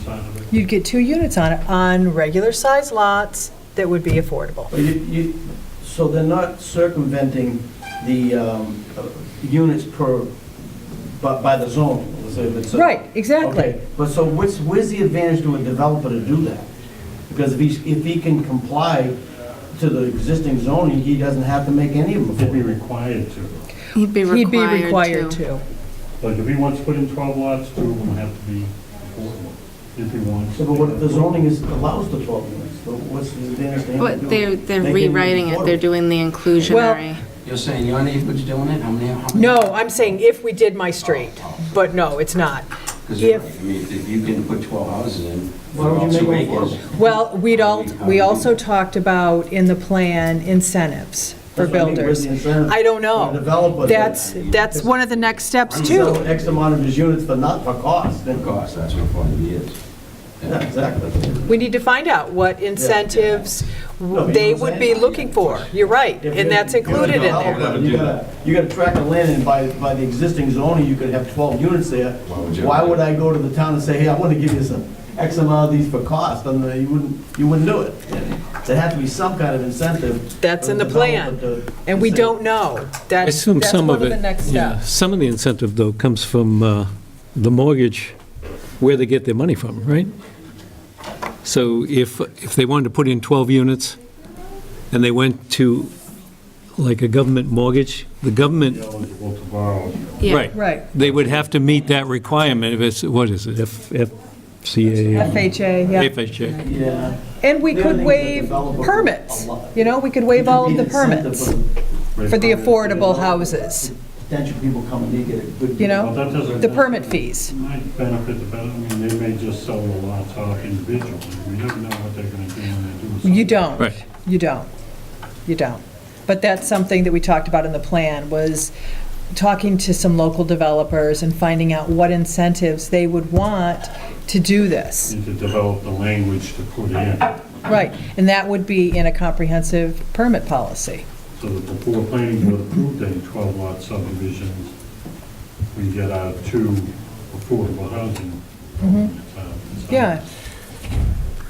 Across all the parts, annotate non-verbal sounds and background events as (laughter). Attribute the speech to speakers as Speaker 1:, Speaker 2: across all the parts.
Speaker 1: fine with me.
Speaker 2: You'd get two units on it, on regular-sized lots that would be affordable.
Speaker 3: But you- you- So they're not circumventing the um, uh, units per, by by the zone? let's say if it's a-
Speaker 2: Right, exactly.
Speaker 3: Okay, But so what's, where's the advantage to a developer to do that? Because if he, if he can comply to the existing zoning, he doesn't have to make any of
Speaker 1: They'd be
Speaker 3: them.
Speaker 1: required to.
Speaker 4: He'd be
Speaker 2: He'd be required
Speaker 4: required to.
Speaker 2: to.
Speaker 1: Like, if he wants to put in 12 lots, two of them have to be affordable, if he wants.
Speaker 3: So but what if the zoning is, allows the 12 units? So What's the advantage to him? to do
Speaker 4: But
Speaker 3: it?
Speaker 4: they're, they're
Speaker 3: Make it
Speaker 4: rewriting it, they're
Speaker 3: affordable.
Speaker 4: doing the inclusionary.
Speaker 5: You're saying your neighborhood's doing it? How many? how many-
Speaker 2: No, I'm saying if we did my street, but no, it's not.
Speaker 5: 'Cause you're
Speaker 2: if-
Speaker 5: right. I mean, if you can put 12 houses in.
Speaker 3: Why would you
Speaker 5: they're all
Speaker 3: make
Speaker 5: two
Speaker 3: it?
Speaker 5: affordable.
Speaker 2: Well, we'd all, we also talked about in the plan incentives for
Speaker 3: That's what I mean, where's
Speaker 2: builders.
Speaker 3: the incentive
Speaker 2: I don't
Speaker 3: for the
Speaker 2: know.
Speaker 3: developer to-
Speaker 2: That's, that's one of the next steps
Speaker 3: Sell
Speaker 2: too.
Speaker 3: X amount of his units for not, for cost, then
Speaker 5: Of course, that's what 40B
Speaker 3: (laughs)
Speaker 5: is.
Speaker 3: Yeah, exactly.
Speaker 2: We need to find out what incentives they would be looking for. You're right, and that's included in there.
Speaker 3: You gotta, you gotta track the land, and by, by the existing zoning, you could have 12 units there.
Speaker 5: Why would you?
Speaker 3: Why would I go to the town and say, hey, I wanna give you some, X amount of these for cost, and uh, you wouldn't, you wouldn't do it. There has to be some kind of incentive.
Speaker 2: That's
Speaker 3: for
Speaker 2: in the plan,
Speaker 3: developer to-
Speaker 2: and we don't know.
Speaker 6: I
Speaker 2: That's,
Speaker 6: assume
Speaker 2: that's
Speaker 6: some
Speaker 2: one
Speaker 6: of
Speaker 2: of
Speaker 6: it.
Speaker 2: the next
Speaker 6: yeah,
Speaker 2: steps.
Speaker 6: Some of the incentive, though, comes from uh, the mortgage, where they get their money from, right? So if, if they wanted to put in 12 units, and they went to, like, a government mortgage, the government,
Speaker 1: Eligible to borrow.
Speaker 4: Yeah.
Speaker 6: right,
Speaker 2: Right.
Speaker 6: they would have to meet that requirement if it's, what is it, F- FCA?
Speaker 2: FHA, yeah.
Speaker 6: FHA.
Speaker 3: Yeah.
Speaker 2: And we
Speaker 3: The other thing
Speaker 2: could
Speaker 3: is
Speaker 2: waive
Speaker 3: the developer-
Speaker 2: permits, you know, we could waive all of the permits for the affordable houses,
Speaker 3: Potential people coming to get a good.
Speaker 2: You know?
Speaker 1: Well, that doesn't-
Speaker 2: the permit fees.
Speaker 1: Might benefit the, better- I mean, they may just sell the lots off individually. We never know what they're gonna do when they do.
Speaker 2: You don't.
Speaker 6: Right.
Speaker 2: You don't. You don't. But that's something that we talked about in the plan, was talking to some local developers and finding out what incentives they would want to do this.
Speaker 1: Need to develop the language to put in,
Speaker 2: Right, and that would be in a comprehensive permit policy.
Speaker 1: so that before planning board approved any 12 lot subdivisions, we get our two affordable housing. It's, uh, it's, uh,
Speaker 2: Mm-hmm. Yeah,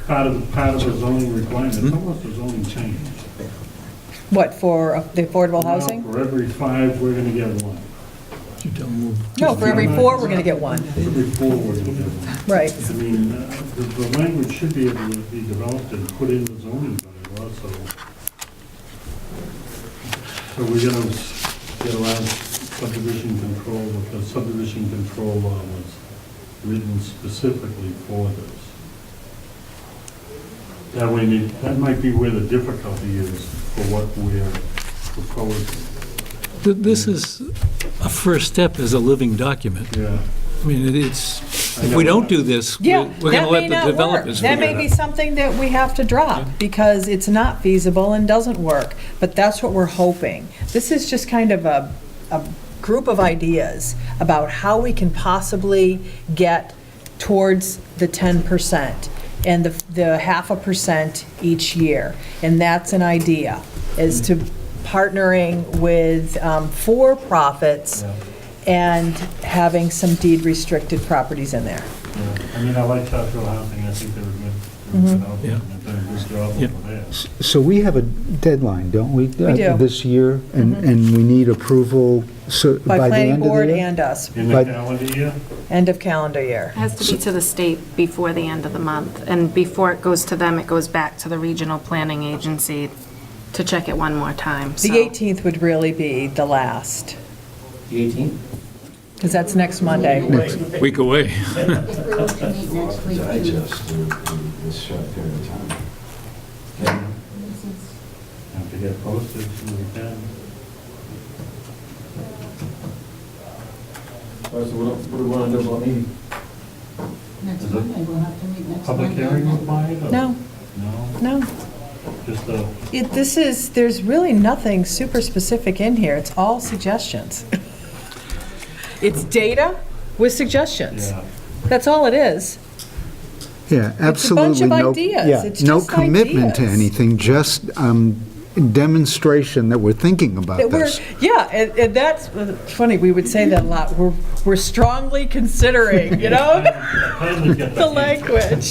Speaker 1: Part of, part of a zoning requirement, it's almost a zoning change.
Speaker 2: what, for the affordable
Speaker 1: Now,
Speaker 2: housing?
Speaker 1: For every five, we're gonna get one.
Speaker 2: No, for every four, we're going to get one.
Speaker 1: For every four, we're gonna get one.
Speaker 2: Right,
Speaker 1: I mean, uh, the, the language should be able to be developed and put in the zoning bylaw, so. So we're gonna s- get around subdivision control, because subdivision control law was written specifically for this. That way, need- that might be where the difficulty is for what we're proposing,
Speaker 6: Th- This is, a first step is a living document.
Speaker 1: yeah.
Speaker 6: I mean, it- it's, if we don't do this, we're
Speaker 2: yeah,
Speaker 6: we're
Speaker 2: that
Speaker 6: gonna
Speaker 2: may
Speaker 6: let the
Speaker 2: not work.
Speaker 6: developers figure
Speaker 2: That
Speaker 6: it out.
Speaker 2: may be something that we have to drop, because it's not feasible and doesn't work, but that's what we're hoping. This is just kind of a, a group of ideas about how we can possibly get towards the 10% and the, the half a percent each year. And that's an idea, is to partnering with um, for-profits and having some deed-restricted properties in there.
Speaker 1: Yeah, I mean, I like Southfield Housing, I think they're good, they're good development, and they're a good job
Speaker 6: Yeah.
Speaker 1: over there.
Speaker 7: So we have a deadline, don't we? We
Speaker 2: do. Mm-hmm.
Speaker 7: This year, and, and we need approval so-
Speaker 2: By
Speaker 7: by the
Speaker 2: planning
Speaker 7: end of
Speaker 2: board
Speaker 7: the year?
Speaker 2: and us,
Speaker 1: In the
Speaker 7: But-
Speaker 1: calendar year,
Speaker 2: end of calendar year.
Speaker 4: It has to be to the state before the end of the month, and before it goes to them, it goes back to the regional planning agency to check it one more time, so.
Speaker 2: The 18th would really be the last,
Speaker 3: The 18th?
Speaker 2: because that's next Monday.
Speaker 6: Week away.
Speaker 8: If we were to meet next week,
Speaker 5: To
Speaker 8: too,
Speaker 5: digest in in uh, this short period of time. Okay.
Speaker 8: since
Speaker 1: have to get posted, so we can.
Speaker 3: All right, so what what do we wanna do about meeting?
Speaker 8: next Monday, we'll have to meet next Monday.
Speaker 1: Public hearing required? or-
Speaker 2: No,
Speaker 1: No,
Speaker 2: no.
Speaker 1: just a,
Speaker 2: It, this is, there's really nothing super specific in here. It's all suggestions. (laughs) It's data with suggestions. (laughs)
Speaker 1: yeah.
Speaker 2: That's all it is.
Speaker 7: Yeah,
Speaker 2: It's a bunch
Speaker 7: absolutely
Speaker 2: of
Speaker 7: no.
Speaker 2: ideas.
Speaker 7: yeah,
Speaker 2: It's
Speaker 7: No
Speaker 2: just
Speaker 7: commitment to
Speaker 2: ideas.
Speaker 7: anything, just um, demonstration that we're thinking about
Speaker 2: That we're,
Speaker 7: this.
Speaker 2: yeah, and, and that's it's funny, we would say that a lot, we're, we're strongly considering, you know,
Speaker 1: I finally got
Speaker 2: the language.